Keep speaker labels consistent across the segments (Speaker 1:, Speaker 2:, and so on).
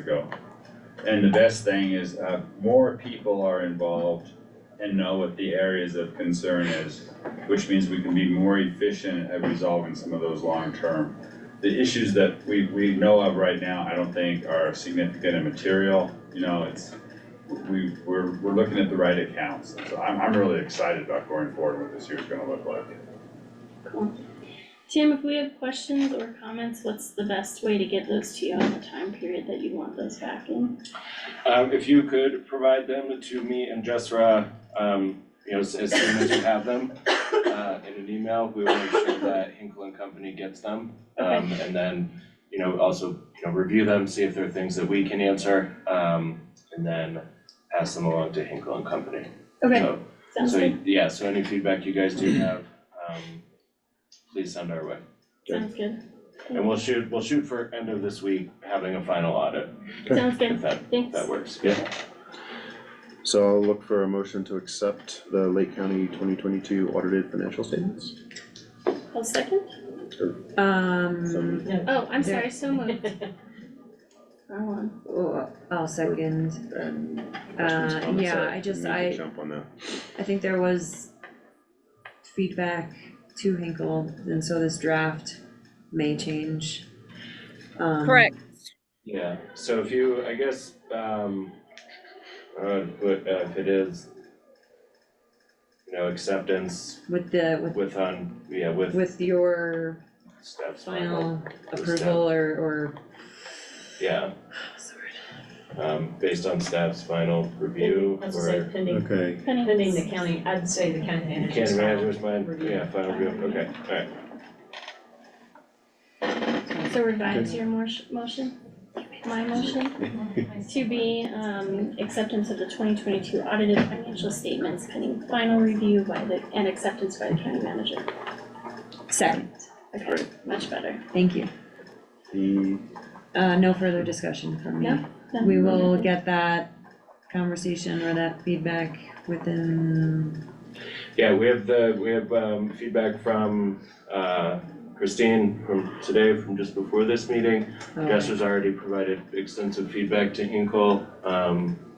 Speaker 1: ago. And the best thing is, uh, more people are involved and know what the areas of concern is, which means we can be more efficient at resolving some of those long-term. The issues that we, we know of right now, I don't think are significant and material, you know, it's, we, we're, we're looking at the right accounts. So I'm, I'm really excited about going forward what this year's gonna look like.
Speaker 2: Cool. Tim, if we have questions or comments, what's the best way to get those to you on the time period that you want those back in?
Speaker 3: Um, if you could provide them to me and Jessra, um, you know, as as soon as you have them, uh, in an email, we will make sure that Hinkle and Company gets them. Um, and then, you know, also, you know, review them, see if there are things that we can answer, um, and then pass them along to Hinkle and Company.
Speaker 2: Okay,
Speaker 3: So,
Speaker 2: sounds
Speaker 3: Uh, so,
Speaker 2: good,
Speaker 3: yeah, so any feedback you guys do have, um, please send our way.
Speaker 2: sounds good,
Speaker 3: And we'll shoot, we'll shoot for end of this week, having a final audit,
Speaker 4: Okay.
Speaker 2: sounds
Speaker 3: if
Speaker 2: good,
Speaker 3: that, if
Speaker 2: thanks.
Speaker 3: that works, yeah.
Speaker 4: So I'll look for a motion to accept the Lake County twenty twenty-two audited financial statements.
Speaker 2: I'll second.
Speaker 5: Um,
Speaker 2: Oh, I'm sorry, so moved. Wrong one.
Speaker 5: oh, I'll second,
Speaker 4: And questions,
Speaker 5: uh,
Speaker 4: comments,
Speaker 5: yeah,
Speaker 4: uh,
Speaker 5: I just,
Speaker 4: we need to
Speaker 5: I,
Speaker 4: Jump on that.
Speaker 5: I think there was feedback to Hinkle, and so this draft may change. Um,
Speaker 6: Correct.
Speaker 3: Yeah, so if you, I guess, um, uh, but uh, if it is, you know, acceptance
Speaker 5: With the, with,
Speaker 3: with on, yeah, with
Speaker 5: with your
Speaker 3: steps, final,
Speaker 5: final approval or, or,
Speaker 3: yeah,
Speaker 5: sorry,
Speaker 3: um, based on steps, final review,
Speaker 7: Let's say
Speaker 3: or
Speaker 7: pending,
Speaker 4: Okay,
Speaker 2: Penny,
Speaker 7: pending the county, I'd say the county manager's.
Speaker 3: can't imagine
Speaker 7: file.
Speaker 3: which mine,
Speaker 7: review.
Speaker 3: yeah, final review, okay, alright.
Speaker 2: so revise your mor- motion, my motion, to be, um, acceptance of the twenty twenty-two audited financial statements pending final review by the, and acceptance by the county manager.
Speaker 5: second,
Speaker 2: Okay, much better.
Speaker 5: thank you.
Speaker 4: the,
Speaker 5: Uh, no further discussion from me.
Speaker 2: No, no.
Speaker 5: We will get that conversation or that feedback within,
Speaker 3: Yeah, we have the, we have, um, feedback from, uh, Christine from today, from just before this meeting,
Speaker 5: oh,
Speaker 3: Jess has already provided extensive feedback to Hinkle. Um,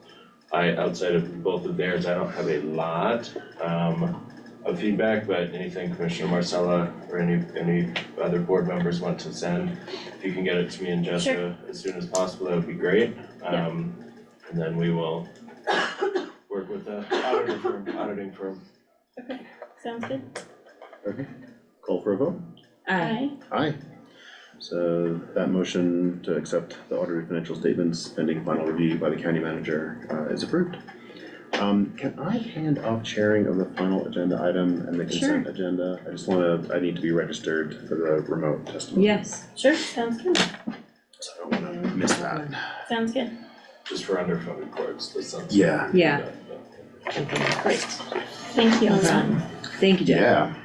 Speaker 3: I, outside of both of theirs, I don't have a lot, um, of feedback, but anything Commissioner Marcella or any, any other board members want to send, if you can get it to me and Jessica as soon as possible, that would be great.
Speaker 2: Yeah.
Speaker 3: Um, and then we will work with the auditor firm, auditing firm.
Speaker 2: Sounds good,
Speaker 4: okay, call for a vote?
Speaker 5: aye,
Speaker 2: aye.
Speaker 4: Aye. So that motion to accept the audited financial statements pending final review by the county manager uh, is approved. Um, can I hand off chairing of the final agenda item and the consent agenda? I just wanna, I need to be registered for the remote testimony.
Speaker 5: yes.
Speaker 2: Sure, sounds good,
Speaker 4: So I don't wanna miss that.
Speaker 2: sounds good.
Speaker 3: Just for underfunded courts, that sounds.
Speaker 4: Yeah.
Speaker 5: Yeah.
Speaker 2: Thank you, Ozan.
Speaker 5: Thank you, Jeff.
Speaker 4: Yeah.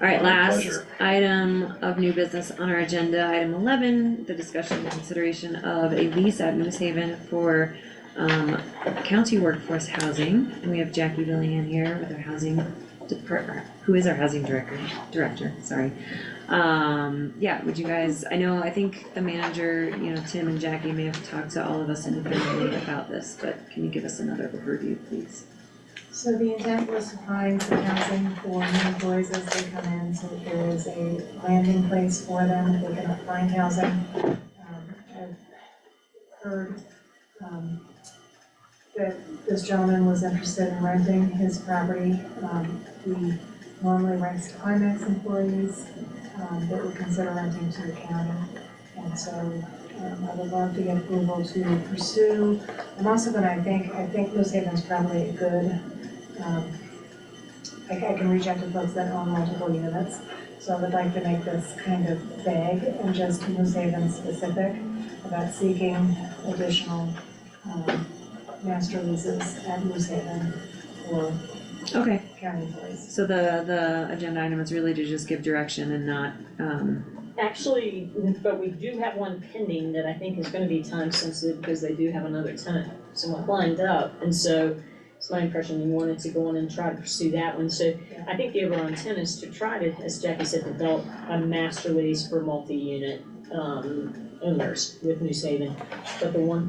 Speaker 5: Alright,
Speaker 3: My
Speaker 5: last
Speaker 3: pleasure.
Speaker 5: item of new business on our agenda, item eleven, the discussion and consideration of a lease at Moose Haven for um county workforce housing. And we have Jackie Villian here with our housing department, who is our housing director, director, sorry. Um, yeah, would you guys, I know, I think the manager, you know, Tim and Jackie may have talked to all of us individually about this, but can you give us another overview, please?
Speaker 8: So the intent was to find some housing for new employees as they come in, so that there is a landing place for them if they cannot find housing. Um, I've heard, um, that this gentleman was interested in renting his property. Um, he normally rents to IMAX employees, um, that would consider renting to the county. And so, um, I would love to get approval to pursue. I'm also gonna, I think, I think Moose Haven's probably a good um, I I can reach out to folks that own multiple units, so I would like to make this kind of vague and just Moose Haven specific about seeking additional um, master leases at Moose Haven for
Speaker 5: Okay.
Speaker 8: county employees.
Speaker 5: So the, the agenda item is really to just give direction and not, um,
Speaker 7: Actually, but we do have one pending that I think is gonna be time sensitive because they do have another tenant somewhat lined up. And so it's my impression you wanted to go on and try to pursue that one. So I think the overall intent is to try to, as Jackie said, develop a master lease for multi-unit um owners with New Haven. But the one